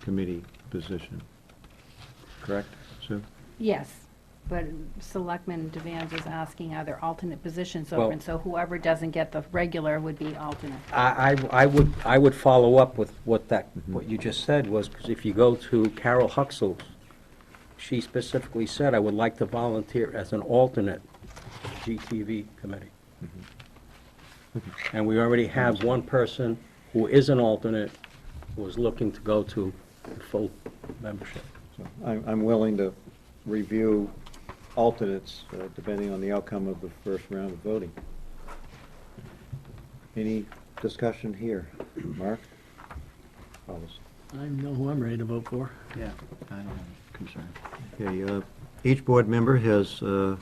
committee position, correct, Sue? Yes, but Selectman Devanz was asking, are there alternate positions Well- open? So whoever doesn't get the regular would be alternate. I, I I would, I would follow up with what that, what you just said was, 'cause if you go to Carol Huxell, she specifically said, I would like to volunteer as an alternate GTV committee. And we already have one person who is an alternate, who is looking to go to full membership. So I'm, I'm willing to review alternates, uh, depending on the outcome of the first round of voting. Any discussion here? Mark? Follows. I know who I'm ready to vote for. Yeah. I don't have a concern. Okay, uh, each board member has uh,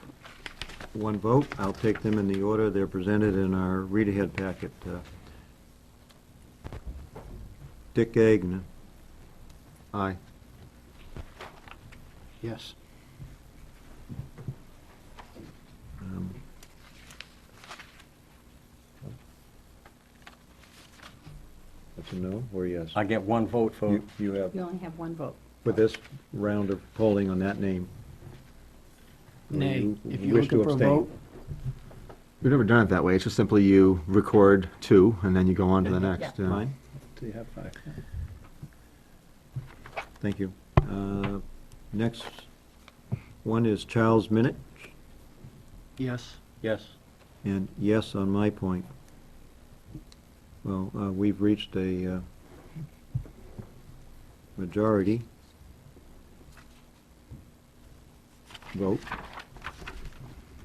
one vote. I'll take them in the order they're presented in our read-ahead packet. Uh, Dick Gagnon. Aye. Yes. Um, That's a no or yes? I get one vote for, You- You have, You only have one vote. for this round of polling on that name. Nay, You if you're wish to looking for a abstain. vote, We've never done it that way. It's just simply you record two and then you go on to the Yeah. next. yeah. Fine, do you have five? thank you. Uh, Next one is Charles Minute, yes. Yes. and yes on my point. Well, uh, we've reached a uh, majority vote.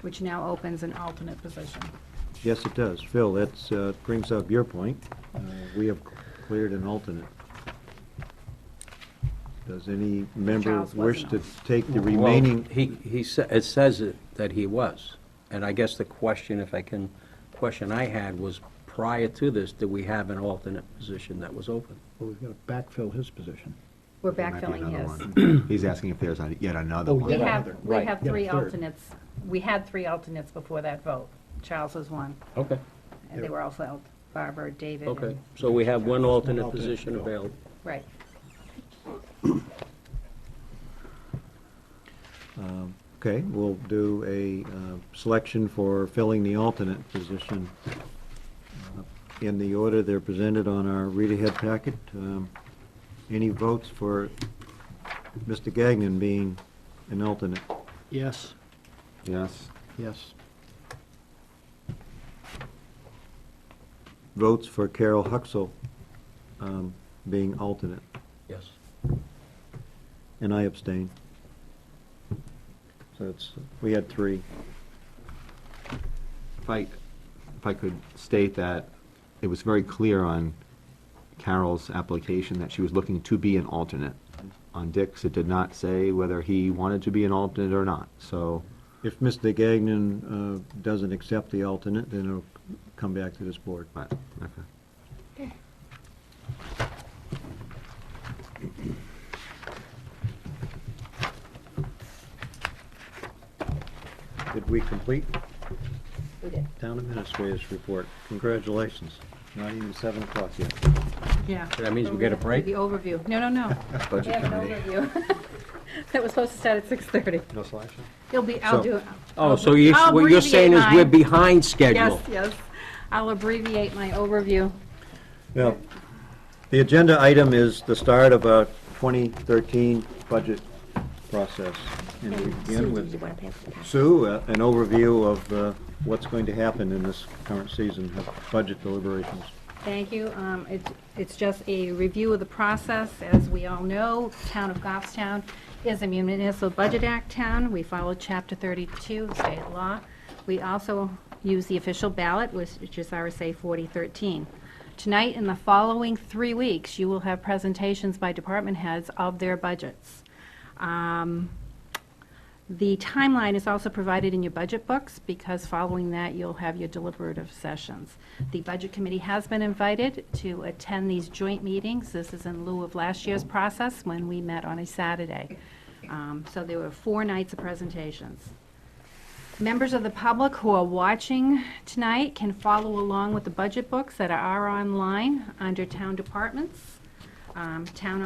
Which now opens an alternate position. Yes, it does. Phil, that's, uh, brings up your point. Uh, We have cleared an alternate. Does any member Charles was wish an to take the Well, remaining? He, he, sa- it says it- that he was, and I guess the question, if I can, question I had was, prior to this, did we have an alternate position that was open? Well, we've got to backfill his position. We're There might be backfilling another his. one. He's asking if there's a- yet another Oh, one. We Yeah, have, we right, have yeah, three third. alternates. We had three alternates before that vote. Charles was one, Okay. and they were also alt- Barbara, David, Okay, and, so we have one alternate alternate position to go. available. right. Um, Okay, we'll do a uh, selection for filling the alternate position uh, in the order they're presented on our read-ahead packet. Um, Any votes for Mr. Gagnon being an alternate? Yes, Yes. yes, Votes for Carol Huxell um, being alternate? Yes. And I abstain. So it's, we had three. If I, if I could state that it was very clear on Carol's application that she was looking to be an alternate. On Dick's, it did not say whether he wanted to be an alternate or not, so, If Mr. Gagnon uh, doesn't accept the alternate, then it'll come back to this board. but, okay. Did we complete We did. town administrator's report? Congratulations. Not even seven o'clock yet. Yeah. So that means we get a break? The overview. No, no, no. We Budget have an committee. overview. That was supposed to start at 6:30. No selection? It'll be, I'll So- do it. Oh, I'll- so you, I'll what you're saying is abbreviate we're mine. behind schedule? Yes, yes. I'll abbreviate my overview. No. The agenda item is the start of a 2013 budget process. And we begin with Sue, uh, an overview of uh, what's going to happen in this current season of budget deliberations. Thank you. Um, It's it's just a review of the process. As we all know, Town of Goffstown is a municipal budget act town. We follow Chapter 32 of state law. We also use the official ballot, which which is RSA 4013. Tonight and the following three weeks, you will have presentations by department heads of their budgets. Um, The timeline is also provided in your budget books, because following that, you'll have your deliberative sessions. The Budget Committee has been invited to attend these joint meetings. This is in lieu of last year's process, when we met on a Saturday. Um, So there were four nights of presentations. Members of the public who are watching tonight can follow along with the budget books that are online under Town Departments, um, Town